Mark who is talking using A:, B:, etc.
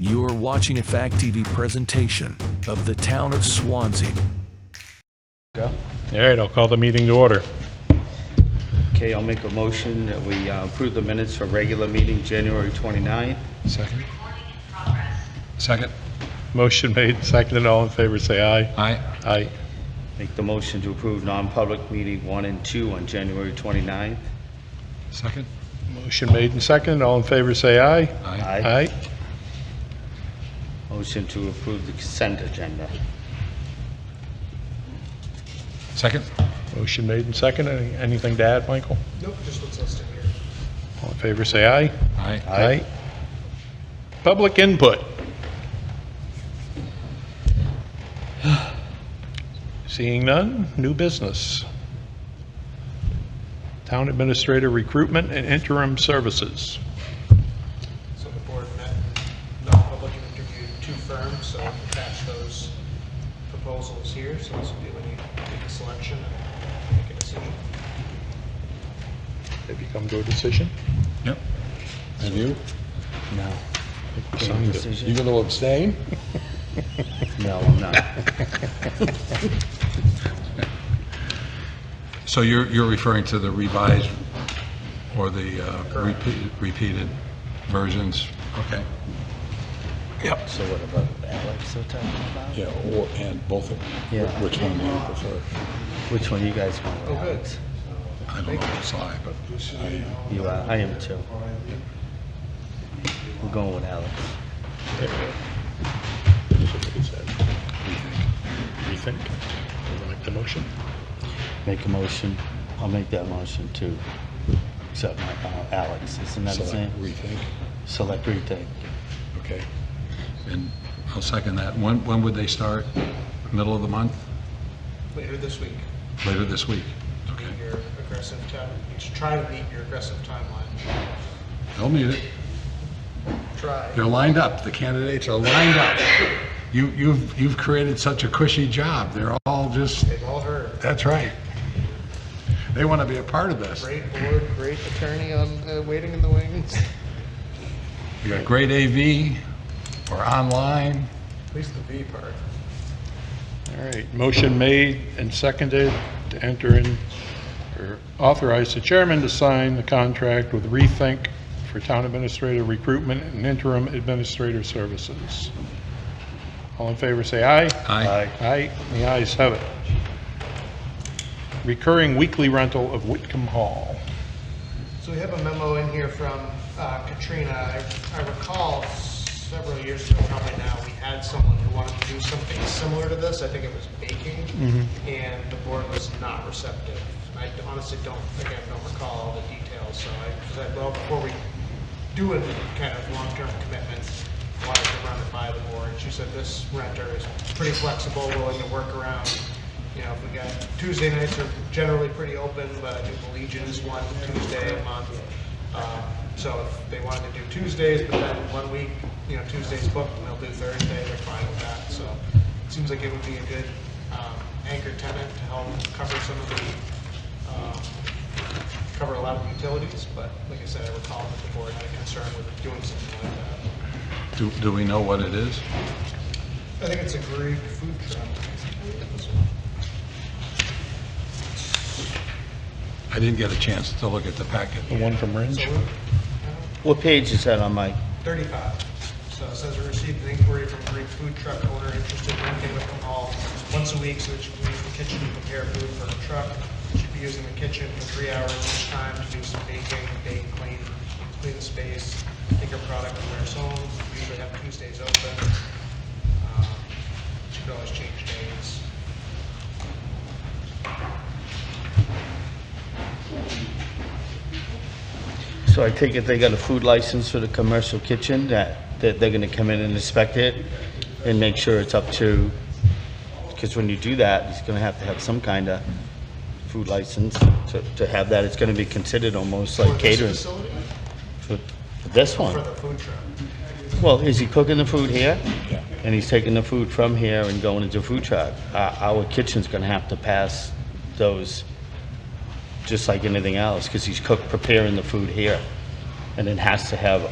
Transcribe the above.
A: You are watching a Fact TV presentation of the town of Swansea.
B: All right, I'll call the meeting to order.
C: Okay, I'll make a motion that we uh, approve the minutes for regular meeting, January 29th.
B: Second. Second. Motion made, seconded, all in favor, say aye.
D: Aye.
B: Aye.
C: Make the motion to approve non-public meeting one and two on January 29th.
D: Second?
B: Motion made and seconded, all in favor, say aye.
D: Aye.
C: Aye. Motion to approve the consent agenda.
D: Second?
B: Motion made and seconded, Any- anything to add, Michael?
E: Nope, just what's listed here.
B: All in favor, say aye.
D: Aye.
B: Aye. Public input. Seeing none, new business. Town Administrator Recruitment and Interim Services.
E: So the board met, non-public and interviewed two firms, so I've attached those proposals here, so this will be when you make a selection and make a decision.
B: Have you come to a decision?
D: Yep.
F: Have you?
C: No.
B: Sounds good.
F: You
C: Decision?
F: gonna abstain?
C: No, I'm not.
D: So you're, you're referring to the revised or the uh, repeat- repeated versions? Okay.
C: So what about Alex are talking about?
F: Yeah, or, and both of them.
C: Yeah.
F: Which one do you prefer?
C: Which one you guys want, Alex?
D: I don't know if it's I, but I,
C: You are, I am too. We're going with Alex.
B: Rethink. Would you like the motion?
C: Make a motion, I'll make that motion to accept my, uh, Alex, isn't that his
F: Select,
C: name?
F: rethink,
C: Select retake.
F: okay.
D: and I'll second that. When, when would they start? Middle of the month?
E: Later this week,
D: Later this week?
E: meet your aggressive time, you should try to meet your aggressive timeline.
D: They'll need it.
E: Try.
D: They're lined up. The candidates are lined up. You, you've, you've created such a cushy job. They're all just,
E: They've all heard.
D: that's right. They want to be a part of this.
E: Great board, great attorney on, uh, waiting in the wings.
D: You got great AV or online.
E: At least the V part.
B: All right, motion made and seconded to enter in, or authorize the chairman to sign the contract with Rethink for town administrator recruitment and interim administrator services. All in favor, say aye.
D: Aye.
B: Aye, the ayes have it. Recurring weekly rental of Whitcomb Hall.
E: So we have a memo in here from uh, Katrina. I I recall several years ago, probably now, we had someone who wanted to do something similar to this. I think it was baking, and the board was not receptive. I honestly don't, again, don't recall all the details, so I said, well, before we do a kind of long-term commitment, why to run it by the board? She said this renter is pretty flexible, willing to work around you know, if we got, Tuesday nights are generally pretty open, but I think the Legion is one Tuesday a month. Um, So if they wanted to do Tuesdays, but then one week, you know, Tuesday's booked, and they'll do Thursday, they're fine with that. So it seems like it would be a good um, anchor tenant to help cover some of the, um, cover a lot of utilities, but like I said, I recall that the board had a concern with doing something like that.
D: Do, do we know what it is?
E: I think it's a great food truck.
D: I didn't get a chance to look at the packet.
B: The one from Ringe?
E: So we-
C: What page is that on, Mike?
E: 35. So it says we received an inquiry from a Greek food truck owner interested in renting with them all once a week so that she can use the kitchen to prepare food for her truck. She'd be using the kitchen for three hours each time to do some baking, bake, clean, clean the space, take her product from their home. We usually have Tuesdays open. Um, She could always change days.
C: So I take it they got a food license for the commercial kitchen, that, that they're gonna come in and inspect it and make sure it's up to, because when you do that, it's gonna have to have some kind of food license to, to have that. It's gonna be considered almost
E: For
C: like
E: this
C: catering.
E: facility?
C: For for this
E: For
C: one?
E: the food truck.
C: Well, is he cooking the food here? Yeah. And he's taking the food from here and going into a food truck? Our, our kitchen's gonna have to pass those, just like anything else, because he's cook, preparing the food here. And it has to have